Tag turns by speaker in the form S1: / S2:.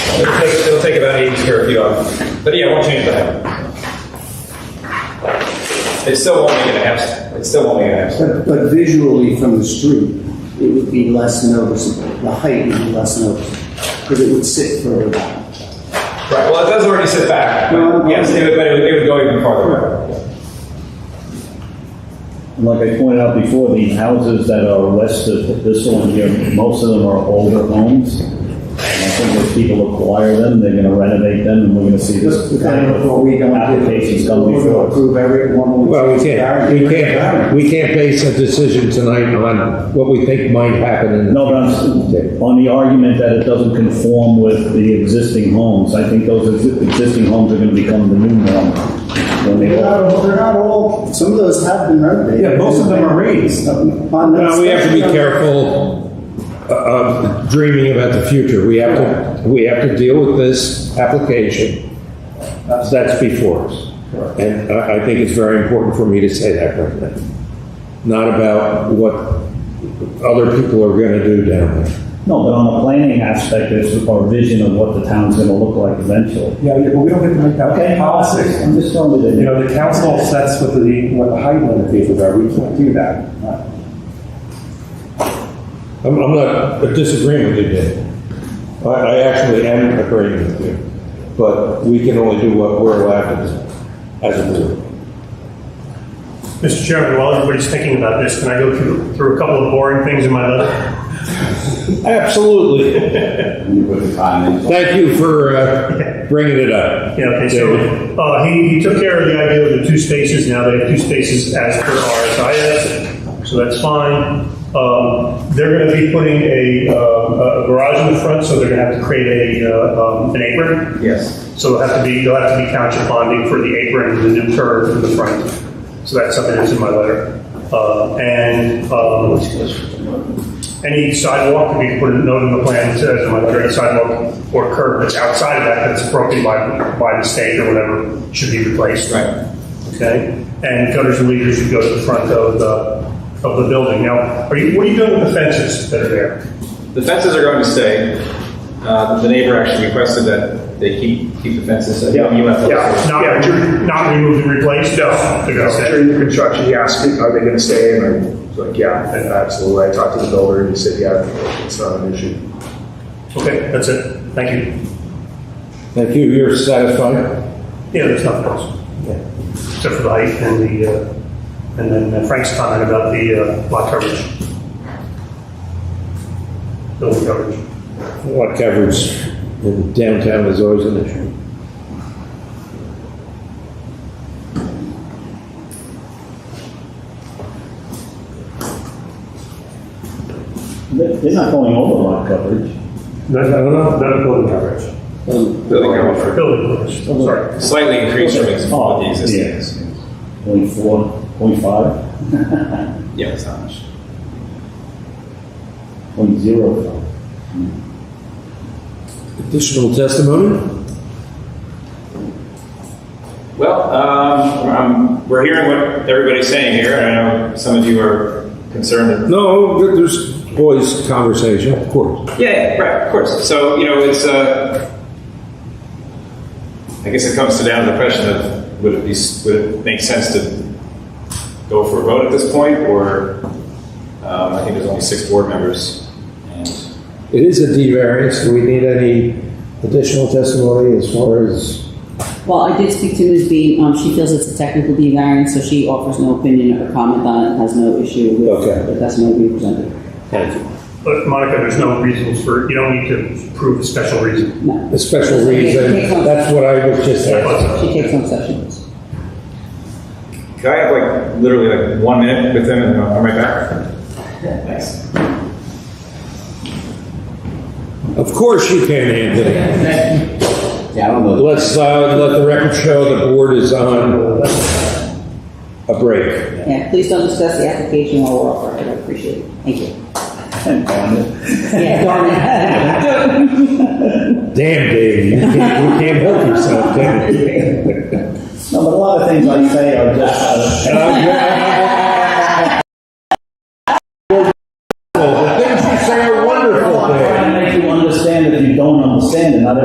S1: It'll take, it'll take about 80 square feet off. But yeah, it won't change the height. It still won't make an abs, it still won't make an abs.
S2: But, but visually from the street, it would be less noticeable. The height would be less noticeable because it would sit further back.
S1: Right, well, it does already sit back.
S2: Well,
S1: Yes, it would, but it would, it would go even farther back.
S3: And Like I pointed out before, the houses that are west of this one here, most of them are older homes. And I think if people acquire them, they're gonna renovate them, and we're gonna see this.
S2: Just kind of what we don't do.
S3: Applications come
S2: We're gonna
S3: before us.
S2: Approve every one.
S4: Well, we can't, we can't, we can't base a decision tonight on what we think might happen in the
S3: No, but I'm, s- on the argument that it doesn't conform with the existing homes, I think those exi- existing homes are gonna become the new norm. when they
S2: They're
S3: all-
S2: not, they're not all, some of those have been renovated.
S5: Yeah, most of them are raised.
S2: On that-
S4: Well, we have to be careful uh, of dreaming about the future. We have to, we have to deal with this application. That's before us. And I, I think it's very important for me to say that right now. Not about what other people are gonna do down there.
S3: No, but on a planning aspect, there's our vision of what the town's gonna look like eventually.
S5: Yeah, yeah, but we don't get to make that policy.
S3: I'm just telling you that.
S5: You know, the council sets what the, what the height limitations are, we can't do that.
S4: I'm, I'm not disagreeing with you, Dave. I, I actually am agreeing with you, but we can only do what we're allowed to do as a board.
S6: Mr. Chairman, while everybody's thinking about this, can I go through, through a couple of boring things in my letter?
S4: Absolutely. Thank you for uh, bringing it up.
S6: Yeah, okay, so,
S4: David.
S6: uh, he, he took care of the idea of the two spaces, now they have two spaces as per RSIS, so that's fine. Um, they're gonna be putting a, uh, a garage in the front, so they're gonna have to create a, uh, um, an apron.
S1: Yes.
S6: So it'll have to be, you'll have to be township bonding for the apron and the new turf in the front. So that's something that's in my letter. Uh, and, um, any sidewalk, if you put a note in the plan, that says, my letter, any sidewalk or curb that's outside of that, that's broken by, by mistake or whatever, should be replaced.
S1: Right.
S6: Okay? And gutters and leaders should go to the front of the, of the building. Now, are you, what are you doing with the fences that are there?
S1: The fences are going to stay. Uh, the neighbor actually requested that they keep, keep the E fences. I think you have to-
S6: Not, not removed and replaced? No. They're gonna stay.
S7: During the construction, he asked me, are they gonna stay? And I was like, yeah, and absolutely. I talked to the builder and he said, yeah, it's not an issue.
S6: Okay, that's it. Thank you.
S4: Thank you, you're satisfied?
S6: Yeah, there's nothing else. Except for the height and the, uh, and then uh, Frank's comment about the uh, lot coverage. Building coverage.
S4: Lot coverage in downtown is always an issue.
S3: They're they're not going over lot coverage.
S6: No, no, no, no, building coverage.
S1: Building coverage.
S6: Building coverage, sorry.
S1: Slightly increased from ex-
S3: Oh,
S1: what the existing.
S3: yeah.
S1: is.
S3: Point four, point five,
S1: Yeah, it's not much.
S3: point zero five.
S4: Additional testimony?
S1: Well, um, um, we're hearing what everybody's saying here, and I know some of you are concerned.
S4: No, there- there's always conversation, of course.
S1: that- Yeah, yeah, right, of course. So, you know, it's, uh, I guess it comes to down to the question of, would it be, would it make sense to go for a vote at this point, or, um, I think there's only six board members, and
S4: It is a D variance, do we need any additional testimony as far as?
S8: Well, I did speak to Ms. B. Um, she feels it's a technical D variance, so she offers no opinion or comment on it, has no issue with
S4: Okay.
S8: the testimony we presented.
S4: Thank you.
S6: But Monica, there's no reasons for, you don't need to prove a special reason.
S8: No.
S4: A special reason, that's what I was just saying.
S8: She takes no exception.
S1: Can I have like literally like one minute with them and then I'll come right back? Thanks.
S4: Of course you can, Anthony.
S2: Yeah, I don't know.
S4: Let's, uh, let the record show the board is on a break.
S8: Yeah, please don't discuss the application while we're off record, I appreciate it. Thank you. Yeah, darn it.
S4: Damn, Dave, you can't, you can't help yourself, can you?
S3: No, but a lot of things I say are just,
S4: And I- I-